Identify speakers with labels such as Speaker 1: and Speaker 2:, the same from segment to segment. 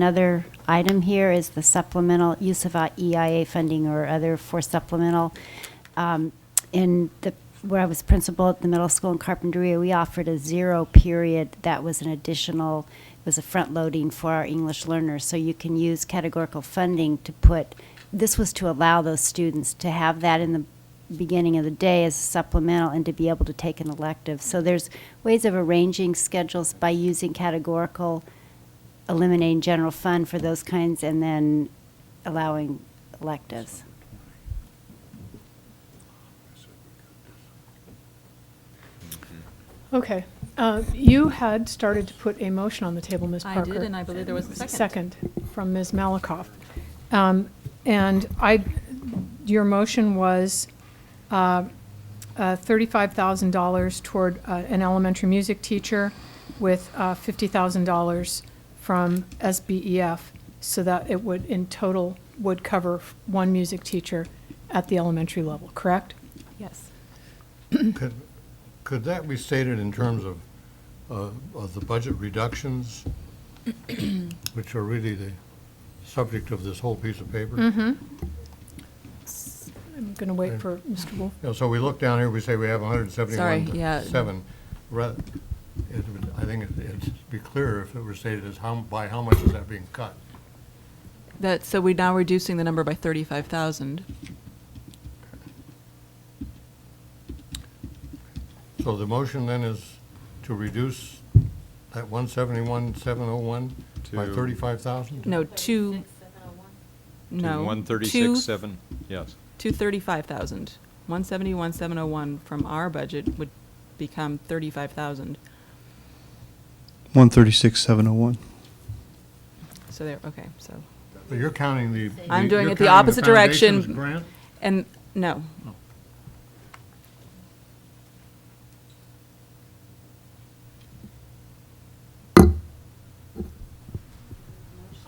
Speaker 1: Another item here is the supplemental use of uh, EIA funding or other for supplemental. Um, In the, where I was principal at the middle school in Carpinteria, we offered a zero period that was an additional, it was a front-loading for our English learners. So you can use categorical funding to put, this was to allow those students to have that in the beginning of the day as supplemental and to be able to take an elective. So there's ways of arranging schedules by using categorical eliminating general fund for those kinds and then allowing electives.
Speaker 2: Mm-hmm.
Speaker 3: Okay. Uh, You had started to put a motion on the table, Ms.
Speaker 4: I
Speaker 3: Parker.
Speaker 4: did, and I believe there was a second.
Speaker 3: Second from Ms. Malakoff. Um, And I, your motion was uh, uh, $35,000 toward uh, an elementary music teacher with uh, $50,000 from SBEF, so that it would, in total, would cover one music teacher at the elementary level, correct?
Speaker 4: Yes.
Speaker 5: Could, could that be stated in terms of, uh, of the budget reductions, which are really the subject of this whole piece of paper?
Speaker 4: Mm-hmm.
Speaker 5: You
Speaker 3: I'm going to wait for Mr. Wolf.
Speaker 5: know, so we look down here, we say we have hundred and seventy-one
Speaker 4: Sorry, yeah.
Speaker 5: to seven. Ra- it would- I think it- it'd be clearer if it were stated as how, by how much is that being cut?
Speaker 4: That, so we're now reducing the number by 35,000.
Speaker 5: So the motion then is to reduce that one seventy-one, seven oh one by
Speaker 2: To-
Speaker 5: thirty-five thousand?
Speaker 4: No, two, no.
Speaker 2: One
Speaker 4: two-
Speaker 2: thirty-six, seven, yes.
Speaker 4: To 35,000. 171, 701 from our budget would become 35,000.
Speaker 6: 136701.
Speaker 4: So there, okay, so.
Speaker 5: But you're counting the.
Speaker 4: I'm
Speaker 5: the-
Speaker 4: doing
Speaker 5: you're
Speaker 4: it the
Speaker 5: counting
Speaker 4: opposite direction.
Speaker 5: foundation's Grant?
Speaker 4: And, no.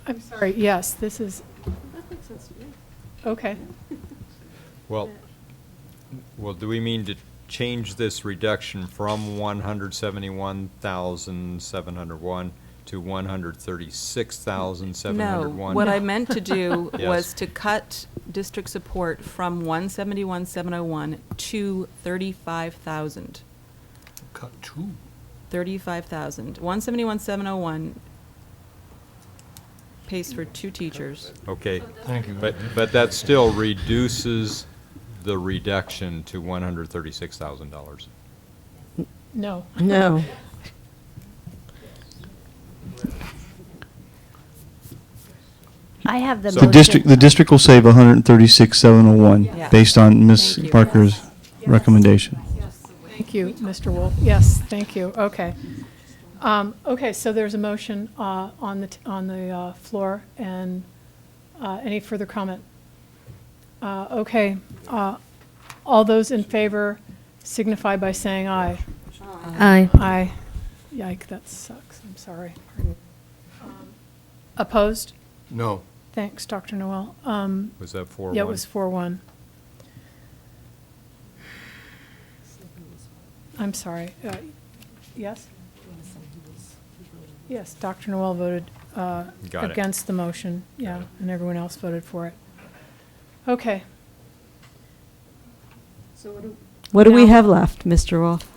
Speaker 3: I'm sorry, yes, this is. Okay.
Speaker 2: Well, well, do we mean to change this reduction from one hundred seventy-one thousand, seven hundred one to one hundred thirty-six thousand, seven hundred one?
Speaker 4: No, what I meant to do
Speaker 2: Yes.
Speaker 4: was to cut district support from 171, 701 to 35,000.
Speaker 5: Cut two.
Speaker 4: 35,000. 171, 701 pays for two teachers.
Speaker 2: Okay,
Speaker 5: Thank you.
Speaker 2: but, but that still reduces the reduction to one hundred thirty-six thousand dollars.
Speaker 3: No.
Speaker 7: No.
Speaker 1: I have the
Speaker 2: So-
Speaker 6: The district, the
Speaker 1: motion.
Speaker 6: district will save 136,701,
Speaker 4: Yeah.
Speaker 6: based on Ms.
Speaker 4: Thank you.
Speaker 6: Parker's recommendation.
Speaker 3: Thank you, Mr. Wolf. Yes, thank you. Okay. Um, Okay, so there's a motion uh, on the, t- on the uh, floor, and uh, any further comment? Uh, Okay. uh, All those in favor signify by saying aye.
Speaker 7: Aye.
Speaker 3: Aye. Yike, that sucks. I'm sorry. Um, Opposed?
Speaker 5: No.
Speaker 3: Thanks, Dr. Noel. Um,
Speaker 2: Was that four one?
Speaker 3: Yeah, it was four one. I'm sorry, uh, yes? Yes, Dr. Noel voted uh,
Speaker 2: Got it.
Speaker 3: against the motion, yeah, and everyone else voted for it. Okay,
Speaker 7: What do we
Speaker 3: Now-
Speaker 7: have left, Mr. Wolf?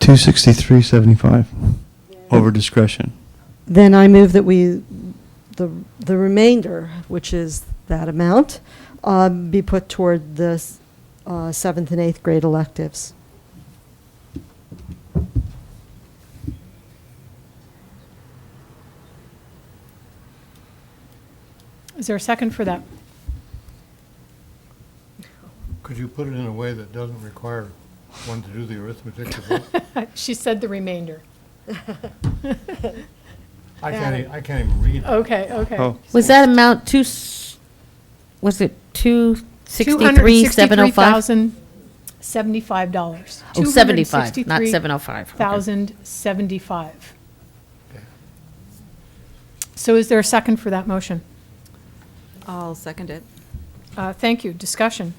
Speaker 6: 263,75, over discretion.
Speaker 7: Then I move that we, the, the remainder, which is that amount, um, be put toward the s- uh, seventh and eighth grade electives.
Speaker 3: is there a second for that?
Speaker 5: Could you put it in a way that doesn't require one to do the arithmetic to vote?
Speaker 3: She said the remainder.
Speaker 5: I can't, e- I can't even read.
Speaker 3: Okay, okay.
Speaker 6: Oh.
Speaker 8: Was that amount two, s- was it two sixty-three, seven oh five?
Speaker 3: dollars.
Speaker 8: Oh, seventy-five, not seven oh five.
Speaker 3: thousand seventy-five. So is there a second for that motion?
Speaker 4: I'll second it.
Speaker 3: Uh, Thank you. Discussion?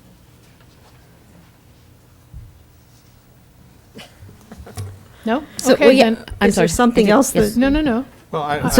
Speaker 3: No?
Speaker 8: So,
Speaker 3: Okay,
Speaker 8: well, yeah,
Speaker 3: then.
Speaker 8: I'm
Speaker 7: Is there
Speaker 8: sorry.
Speaker 7: something
Speaker 8: I did-
Speaker 7: else
Speaker 8: yes.
Speaker 7: that-
Speaker 3: No, no, no.
Speaker 5: Well, I-
Speaker 7: So
Speaker 5: I-